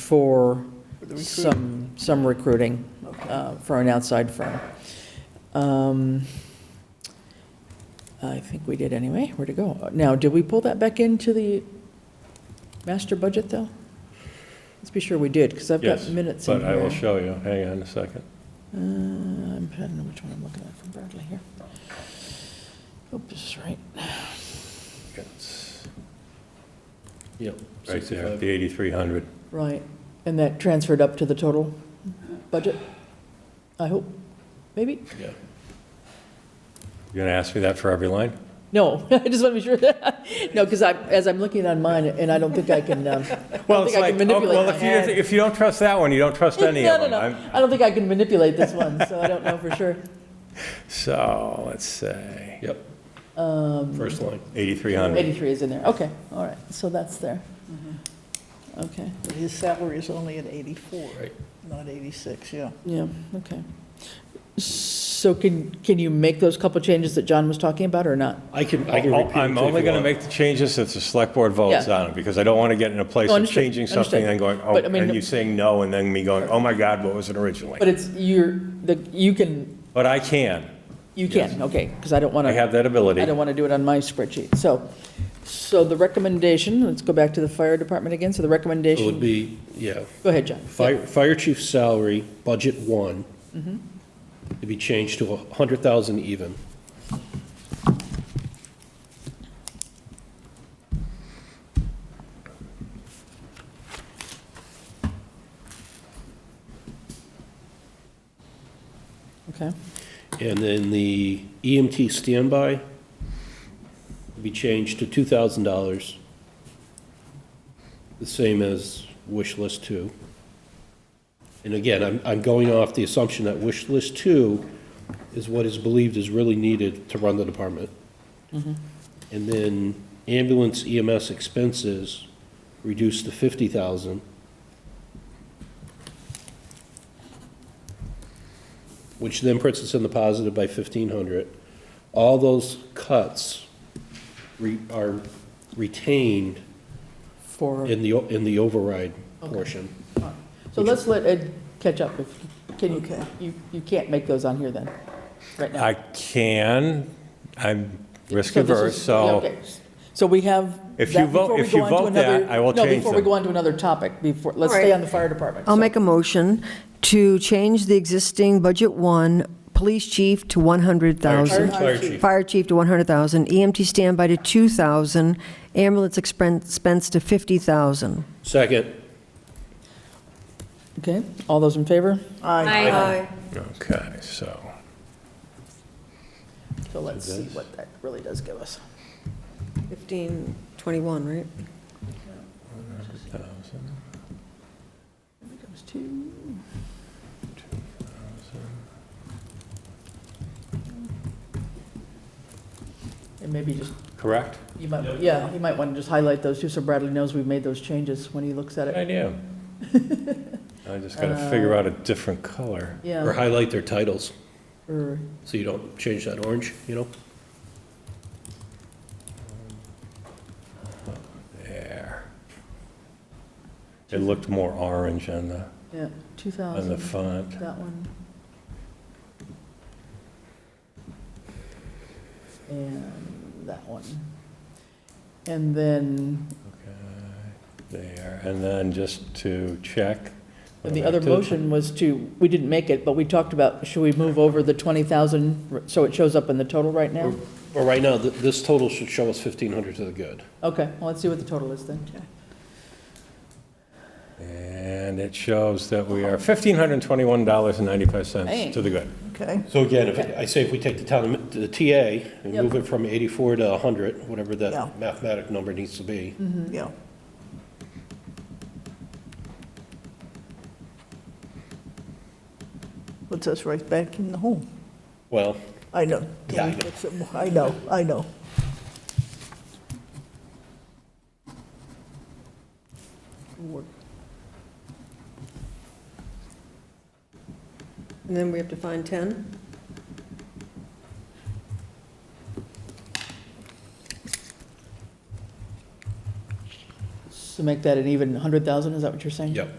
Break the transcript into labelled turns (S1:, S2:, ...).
S1: for some, some recruiting uh, for an outside firm. Um, I think we did anyway. Where'd it go? Now, did we pull that back into the master budget, though? Let's be sure we did, because I've got
S2: Yes,
S1: minutes in
S2: But
S1: here.
S2: I will show you, hang on a second.
S1: Uh, I'm- I don't know which one I'm looking at from Bradley here. Hope this is right.
S2: It's- Yep, right there,
S3: 65.
S2: the 8,300.
S1: Right, and that transferred up to the total budget? I hope, maybe?
S2: Yeah. You're going to ask me that for every line?
S1: No, I just want to be sure. No, because I, as I'm looking on mine, and I don't think I can, um, I
S2: Well,
S1: don't
S2: it's
S1: think I
S2: like,
S1: can
S2: oh,
S1: manipulate
S2: well,
S1: my
S2: if you,
S1: hand.
S2: if you don't trust that one, you don't trust
S1: No,
S2: any of
S1: no,
S2: them. I'm-
S1: no, I don't think I can manipulate this one, so I don't know for sure.
S2: So, let's say,
S3: Yep. First line.
S2: 8,300.
S1: 83 is in there, okay, all right, so that's there. Okay,
S4: But his salary is only at 84,
S3: Right.
S4: not 86, yeah.
S1: yeah, okay. So can, can you make those couple changes that John was talking about, or not?
S3: I can, I can repeat it to you
S2: I'm
S3: if
S2: only
S3: you want.
S2: going to make the changes if the select board votes
S1: Yeah.
S2: on it, because I don't want to get in a place
S1: No,
S2: of
S1: understood,
S2: changing something and
S1: understood.
S2: going, oh,
S1: But, I mean,
S2: and you saying no, and then me going, oh my God, what was it originally?
S1: But it's, you're, the, you can,
S2: But I can,
S1: you can, okay, because I don't want
S2: I
S1: to.
S2: have that ability.
S1: I don't want to do it on my spreadsheet. So, so the recommendation, let's go back to the fire department again. So the
S3: It would
S1: recommendation,
S3: be, yeah,
S1: go ahead, John.
S3: fire, fire chief salary, budget one, Mm-hmm. to be changed to a hundred thousand even.
S1: Okay,
S3: And then the EMT standby will be changed to two thousand dollars. The same as wish list two. And again, I'm, I'm going off the assumption that wish list two is what is believed is really needed to run the department. And then ambulance EMS expenses reduced to fifty thousand. which then puts us in the positive by fifteen hundred. All those cuts re- are retained
S1: for,
S3: in the, o- in the override portion.
S1: so let's let Ed catch up if, can you,
S4: Okay.
S1: you, you can't make those on here then, right now?
S2: I can, I'm risk
S1: So this is-
S2: averse,
S1: yeah,
S2: so.
S1: okay. So we have.
S2: If
S1: that
S2: you vote-
S1: before we
S2: if you
S1: go on to
S2: vote that,
S1: another-
S2: I will
S1: no,
S2: change
S1: Before we
S2: them.
S1: go on to another topic, before, let's
S5: All right.
S1: stay on the fire department.
S5: I'll
S1: So-
S5: make a motion to change the existing Budget 1 Police Chief to 100,000.
S3: Fire chief.
S5: Fire Chief to 100,000, EMT E standby to 2,000, ambulance expen- expense to 50,000.
S3: Second,
S1: Okay, all those in favor?
S5: Aye.
S2: Okay, so,
S1: So let's see what that really does give us.
S5: 15, 21, right?
S1: Here comes two. And maybe just
S2: correct?
S1: You might, yeah, you might want to just highlight those too, so Bradley knows we've made those changes when he looks at
S2: Good
S1: it.
S2: idea. I just gotta figure out a different color.
S3: or
S1: Yeah,
S3: highlight their titles,
S1: or,
S3: so you don't change that orange, you know?
S2: There. It looked more orange on the,
S1: yeah, two
S2: on
S1: thousand,
S2: the font.
S1: that one. And that one. And then,
S2: There, and then just to check.
S1: and the other
S2: Back to-
S1: motion was to, we didn't make it, but we talked about, should we move over the twenty thousand, so it shows up in the total right now?
S3: But right now, th- this total should show us fifteen hundred to the good.
S1: Okay, well, let's see what the total is then.
S2: And it shows that we are $1,521.95 to the good.
S4: Okay,
S3: So again, if, I say if we take the town, the TA, and
S1: Yep.
S3: move it from eighty-four to hundred, whatever
S4: Yeah.
S3: that mathematic number needs to be,
S4: yeah. Puts us right back in the home.
S3: well,
S4: I know.
S3: Yeah, I know.
S4: That's a- I know, I know.
S5: And then we have to find 10?
S1: So make that an even 100,000, is that what you're saying?
S3: Yep.